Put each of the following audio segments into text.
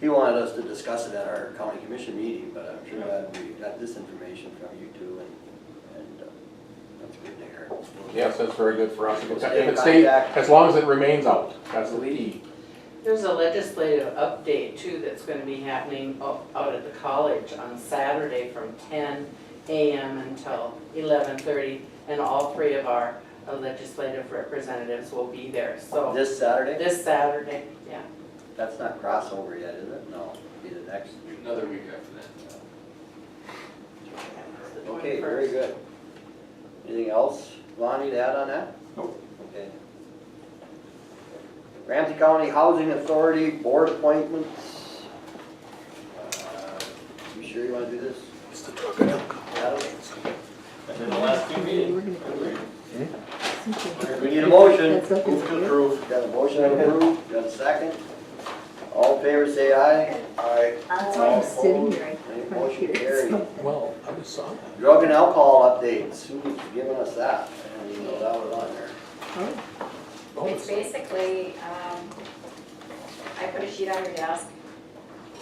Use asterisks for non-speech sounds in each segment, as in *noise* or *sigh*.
He wanted us to discuss it at our county commission meeting, but I'm sure glad we got this information from you two and, and uh, that's good to hear. Yes, that's very good for us. If it's- Stay if it stays, back. as long as it remains out, that's the key. There's a legislative update too that's gonna be happening o- out at the college on Saturday from ten AM until eleven thirty. And all three of our uh, legislative representatives will be there, so This Saturday, this Saturday, yeah. that's not crossover yet, is it? No, be the next. Another week after that. it's the Okay, very 21st. good. Anything else, Lonnie, to add on that? Nope. Okay. Ramsey County Housing Authority Board appointments. Uh, You sure you wanna do this? Adam? In the last two meetings. We need a motion. That's okay. Move to approve. Got a motion to approve, got a second? All in favor, say aye. Aye. That's why I'm sitting here, I can't Motion hear carried. it. Well, I just saw that. Drug and alcohol updates, who's giving us that? I didn't even know that was on there. Bonus. It's basically, um, I put a sheet on your desk.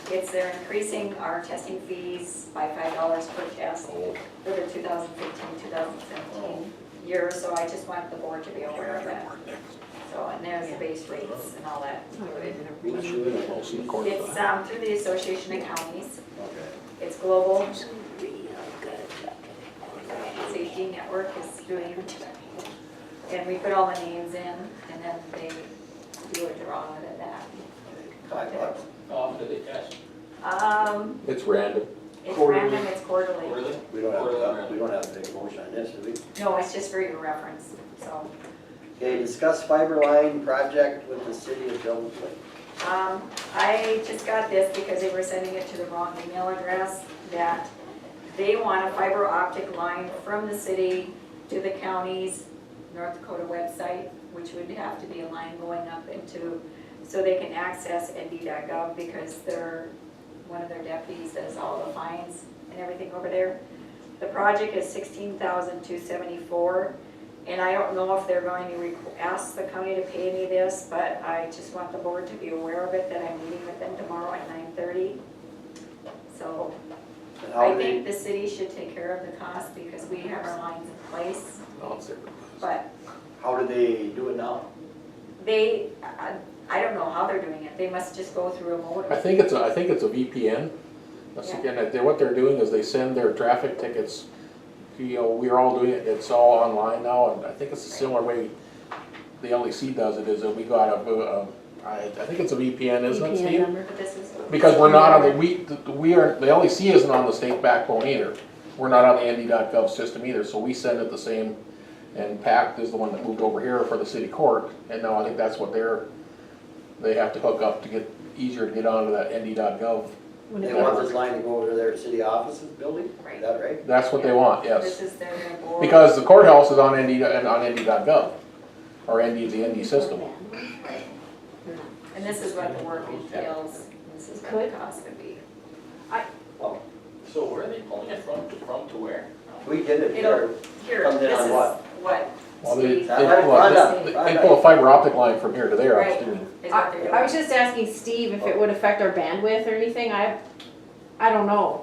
It's they're increasing our testing fees by five dollars per test Oh, for the 2015-2017 year, so I just want the board to be aware of that. So, and there's the base rates and all that. Who's doing it? close in the corner. It's, um, through the Association of Counties, Okay. it's global. Safety Network is doing it. And we put all the names in, and then they do a drawing of that. Five bucks. Off to the cash. Um, It's random. it's Quarterly. random, it's quarterly. Really? uh, We don't have, to- we don't have to take a motion on this, do we? No, it's just for your reference, so. Okay, discuss fiber line project with the city of Devils Lake. Um, I just got this because they were sending it to the wrong email address, that they want a fiber optic line from the city to the county's North Dakota website, which would have to be a line going up into, so they can access ND.gov because their, one of their deputies does all the fines and everything over there. The project is sixteen thousand two seventy-four. And I don't know if they're going to requ- ask the county to pay me this, but I just want the board to be aware of it, that I'm meeting with them tomorrow at nine thirty. So And how I do think they, the city should take care of the cost because we have our lines in place, No, it's there. but how do they do it now? they, I, I don't know how they're doing it, they must just go through a modem. I think it's, a I think it's a VPN. That's Yeah. again, they- what they're doing is they send their traffic tickets, you know, we're all doing it, it's all online now, and I think it's a similar way the LEC does it, is that we got a, uh, I, I think it's a VPN, isn't it, VPN Steve? number. But this is. Because we're not on the, we, the- we are, the LEC isn't on the state backbone either. We're not on the ND.gov system either, so we send it the same, and PACT is the one that moved over here for the city court, and now I think that's what they're, they have to hook up to get, easier to get onto that ND.gov. They Yeah. want this line to go over to their city offices building? Is Right. that right? That's what they want, This yes. is their new board. Because the courthouse is on ND, and on ND.gov, or ND, the ND system. And this is what the work entails, this is what the cost would be. So where are they pulling it from, from to where? We did it here. It'll- Here, Comes in this on is what? what Well, they, they Steve, That line- pull a- line they up, line they pull up. a fiber optic line from here to there, I'm Right. assuming. is what they're I, doing. I was just asking Steve if it would affect our bandwidth or anything, I, I don't know.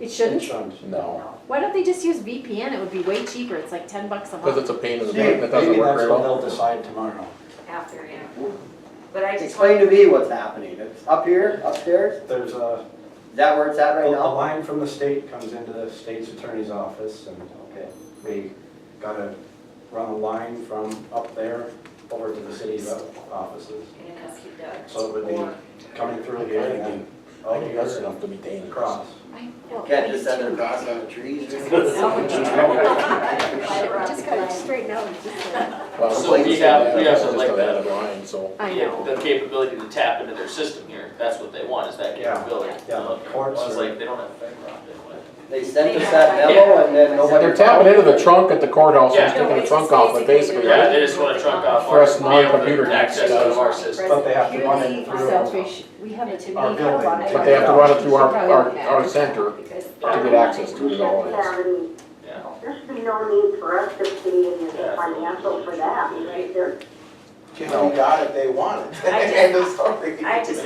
It shouldn't, No. why don't they just use VPN, it would be way cheaper, it's like ten bucks a month. Because it's a pain in the Steve, butt, that doesn't work very well. decide tomorrow. after, yeah. But I just Explain want, to me what's happening. It's up here, upstairs? There's a, Is that where it's at a right now? line from the state comes into the state's attorney's office and Okay. we gotta run a line from up there over to the city's offices. and ask you, Doug. So it would be coming through here and then I think that's over enough to be and dangerous. across. oh, Can't just send it across on the trees or Just gotta straighten out, just like. Well, So like we I said, have- we that's have to just like that. another line, so. I Yeah, know, The capability to tap into their system here, that's what they want, is that Yeah, capability. yeah, Uh, courts It's are- like, they don't have fiber optic. what? They sent us that memo and then nobody. They're tapping into the trunk at the courthouse Yeah. and sticking the trunk off, but basically, Yeah, right? they just wanna trunk off. For us our- be able to non-computer Access guys. out of our system. But they have to run Really, it through myself, to we, we have it it, to be Our kind of building. on it. But they have to run it through our, our, our center Because to get access to it all. Um, Yeah. There's no need for us to be in the financial for that, because they're If we got it, they want it. *laughs* I just- End of story. I just